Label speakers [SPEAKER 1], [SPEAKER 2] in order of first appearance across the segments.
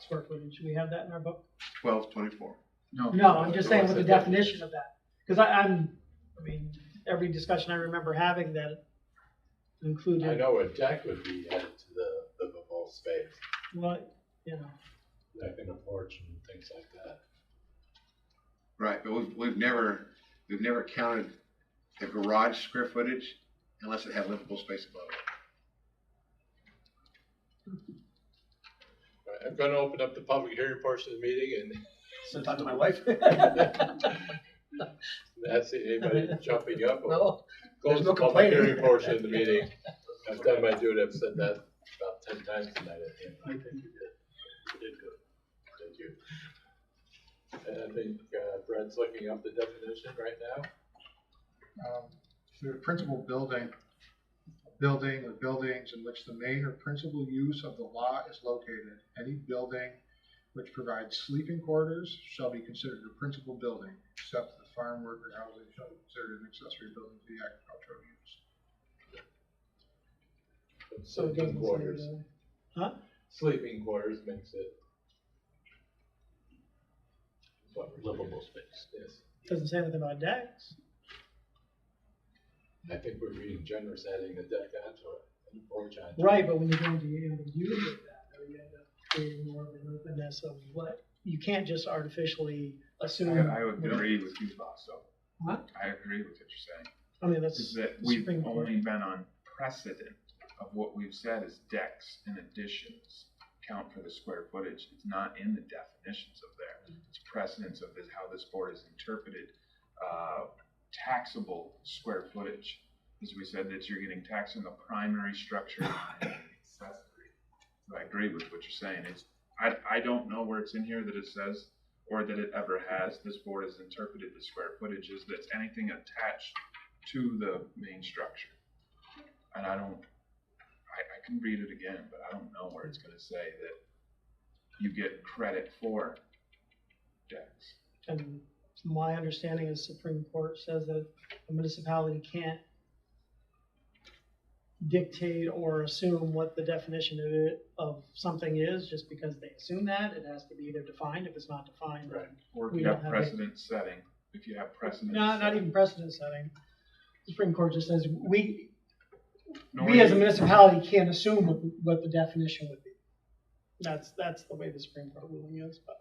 [SPEAKER 1] square footage, do we have that in our book?
[SPEAKER 2] twelve twenty-four.
[SPEAKER 3] No.
[SPEAKER 1] No, I'm just saying
[SPEAKER 3] What's
[SPEAKER 1] with the
[SPEAKER 3] it?
[SPEAKER 1] definition of that, because I, I'm, I mean, every discussion I remember having that
[SPEAKER 4] I
[SPEAKER 1] included,
[SPEAKER 4] know a deck would be added to the livable space,
[SPEAKER 1] what, you know,
[SPEAKER 4] deck and a porch and things like that.
[SPEAKER 2] Right, but we've, we've never, we've never counted the garage square footage unless it had livable space above it.
[SPEAKER 4] All right, I'm gonna open up the public hearing portion of the meeting
[SPEAKER 5] So talk to my wife.
[SPEAKER 4] and ask anybody jumping up or
[SPEAKER 5] no,
[SPEAKER 4] close
[SPEAKER 5] there's no
[SPEAKER 4] the public
[SPEAKER 5] complaining.
[SPEAKER 4] hearing portion of the meeting. I've done my duty, I've said that about ten times tonight, I think. I think you did. You did good. Thank you. And I think uh, Brett's looking up the definition right now.
[SPEAKER 3] um, the principal building, building or buildings in which the main or principal use of the lot is located. Any building which provides sleeping quarters shall be considered a principal building, except the farm worker housing shall be considered an accessory building to the agricultural use.
[SPEAKER 1] so it doesn't say.
[SPEAKER 4] Sleeping quarters,
[SPEAKER 1] that.
[SPEAKER 4] sleeping quarters makes it. what we're doing.
[SPEAKER 5] Livable space.
[SPEAKER 4] Yes,
[SPEAKER 1] Doesn't say anything about decks.
[SPEAKER 4] I think we're being generous adding the deck onto it, and the porch onto it.
[SPEAKER 1] Right, but when you're going to use it, that, you end up creating more of an openness of what, you can't just artificially assume.
[SPEAKER 6] I, I would agree with you, boss, so.
[SPEAKER 1] What?
[SPEAKER 6] I agree with what you're saying,
[SPEAKER 1] I mean, that's.
[SPEAKER 6] is that
[SPEAKER 1] the
[SPEAKER 6] we've
[SPEAKER 1] Supreme Court.
[SPEAKER 6] only been on precedent of what we've said is decks and additions count for the square footage, it's not in the definitions of there. It's precedence of this, how this board has interpreted, uh, taxable square footage. As we said, that you're getting taxed on the primary structure and accessory. So I agree with what you're saying, it's, I, I don't know where it's in here that it says or that it ever has, this board has interpreted the square footage as that's anything attached to the main structure. And I don't, I, I can read it again, but I don't know where it's gonna say that you get credit for decks.
[SPEAKER 1] And my understanding is Supreme Court says that a municipality can't dictate or assume what the definition of it, of something is, just because they assume that, it has to be either defined, if it's not defined.
[SPEAKER 4] Right.
[SPEAKER 6] Or if
[SPEAKER 1] We
[SPEAKER 6] you
[SPEAKER 1] don't
[SPEAKER 6] have
[SPEAKER 1] have it.
[SPEAKER 6] precedent setting, if you have precedent.
[SPEAKER 1] No, not
[SPEAKER 6] setting.
[SPEAKER 1] even precedent setting. The Supreme Court just says, we,
[SPEAKER 6] No,
[SPEAKER 1] we as a municipality can't assume what, what the definition would be. That's, that's the way the Supreme Court ruling is, but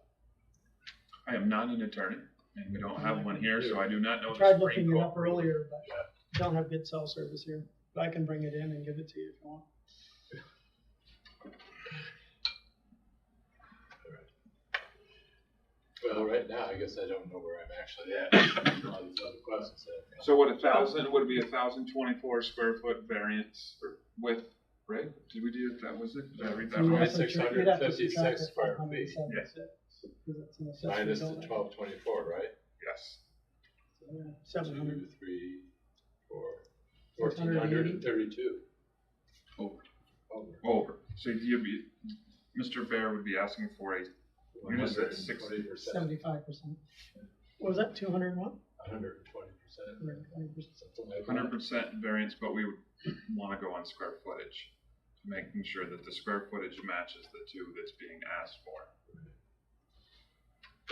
[SPEAKER 6] I am not an attorney, and we don't have one here, so I do not know.
[SPEAKER 1] I
[SPEAKER 6] Oh, the
[SPEAKER 1] tried
[SPEAKER 6] Supreme
[SPEAKER 1] looking it
[SPEAKER 6] Court
[SPEAKER 1] up
[SPEAKER 6] ruling.
[SPEAKER 1] earlier, but don't have good cell service here, but I can bring it in and give it to you if you want.
[SPEAKER 4] Well, right now, I guess I don't know where I'm actually at, all these other questions that I've got.
[SPEAKER 6] So what, a thousand, would be a thousand twenty-four square foot variance or width, right? Did we do, that was it? Did I read that
[SPEAKER 1] You'd
[SPEAKER 4] Right,
[SPEAKER 1] have
[SPEAKER 6] right?
[SPEAKER 1] to subtract- you'd have to subtract
[SPEAKER 4] 656
[SPEAKER 1] the
[SPEAKER 4] square feet.
[SPEAKER 1] 576, 'cause it's an accessory
[SPEAKER 4] Minus the
[SPEAKER 1] building.
[SPEAKER 4] twelve twenty-four, right?
[SPEAKER 6] Yes.
[SPEAKER 1] Yeah, Seven hundred,
[SPEAKER 4] Two, three, four,
[SPEAKER 1] Six
[SPEAKER 4] fourteen
[SPEAKER 1] hundred and
[SPEAKER 4] hundred
[SPEAKER 1] eighty.
[SPEAKER 4] and thirty-two.
[SPEAKER 2] Over.
[SPEAKER 4] Over.
[SPEAKER 6] Over. So you'd be, Mr. Bear would be asking for a, You just said six-
[SPEAKER 4] percent.
[SPEAKER 1] seventy-five percent. What was that, two hundred and one?
[SPEAKER 4] hundred and twenty percent,
[SPEAKER 1] Hundred and twenty percent.
[SPEAKER 4] something like
[SPEAKER 6] hundred
[SPEAKER 4] that.
[SPEAKER 6] percent variance, but we would wanna go on square footage. Making sure that the square footage matches the two that's being asked for.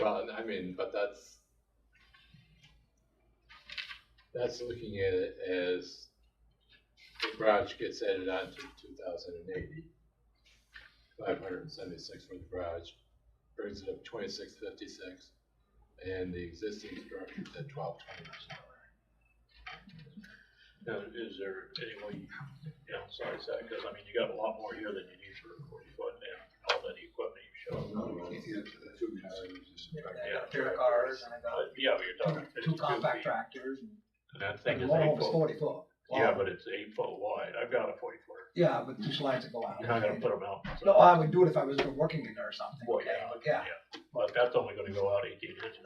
[SPEAKER 4] Well, and I mean, but that's, that's looking at it as the garage gets added on to two thousand and eighty. Five hundred and seventy-six for the garage, brings it up twenty-six fifty-six, and the existing structure is at twelve twenty.
[SPEAKER 7] Now, is there any way you downsize that, cause I mean, you got a lot more here than you need for a forty foot and all that equipment you showed.
[SPEAKER 2] we can't get to that.
[SPEAKER 4] Two cars.
[SPEAKER 7] Yeah.
[SPEAKER 5] There are cars and I
[SPEAKER 7] But
[SPEAKER 5] got
[SPEAKER 7] Uh, yeah, but you're talking
[SPEAKER 5] two
[SPEAKER 7] fifty-two
[SPEAKER 5] compact
[SPEAKER 7] feet,
[SPEAKER 5] tractors. and-
[SPEAKER 7] and that thing
[SPEAKER 5] and
[SPEAKER 7] is
[SPEAKER 5] One of
[SPEAKER 7] eight
[SPEAKER 5] them's
[SPEAKER 7] foot,
[SPEAKER 5] forty foot.
[SPEAKER 7] yeah, but it's eight foot wide, I've got a forty footer,
[SPEAKER 5] Yeah, with two slides that go out.
[SPEAKER 7] you're not gonna put them out.
[SPEAKER 5] No, I would do it if I was working in there or something,
[SPEAKER 7] Well,
[SPEAKER 5] okay,
[SPEAKER 7] yeah.
[SPEAKER 5] but yeah.
[SPEAKER 7] But that's only gonna go out eighteen inches,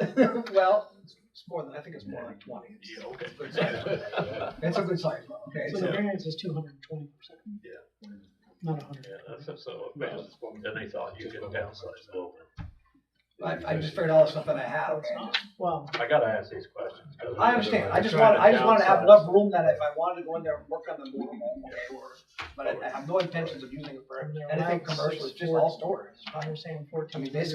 [SPEAKER 5] Well, it's it's more than, I think it's more like twenty. It's-
[SPEAKER 7] yeah, okay.
[SPEAKER 5] it's a good size.
[SPEAKER 4] Yeah.
[SPEAKER 5] It's a good size, though, okay?
[SPEAKER 1] So
[SPEAKER 5] so-
[SPEAKER 1] the variance is two hundred and twenty percent.
[SPEAKER 7] Yeah.
[SPEAKER 1] Not a hundred.
[SPEAKER 7] Yeah, that's, so,
[SPEAKER 4] Well, it's one-
[SPEAKER 7] then they thought you
[SPEAKER 4] just
[SPEAKER 7] could
[SPEAKER 4] one-
[SPEAKER 7] downsize it over.
[SPEAKER 5] I, I just figured all the stuff that I had, okay?
[SPEAKER 1] Well,
[SPEAKER 7] I gotta ask these questions. 'cause
[SPEAKER 5] I understand, I just
[SPEAKER 7] trying
[SPEAKER 5] want, I just want to have
[SPEAKER 7] downsize.
[SPEAKER 5] enough room that if I wanted to go in there and work on the board, okay, or, but I I have no intentions of using it for
[SPEAKER 1] And they're
[SPEAKER 5] anything
[SPEAKER 1] allowed
[SPEAKER 5] commercial,
[SPEAKER 1] six
[SPEAKER 5] it's just all
[SPEAKER 1] boards.
[SPEAKER 5] storage.
[SPEAKER 1] I'm saying
[SPEAKER 5] I
[SPEAKER 1] fourteen.
[SPEAKER 5] mean, basically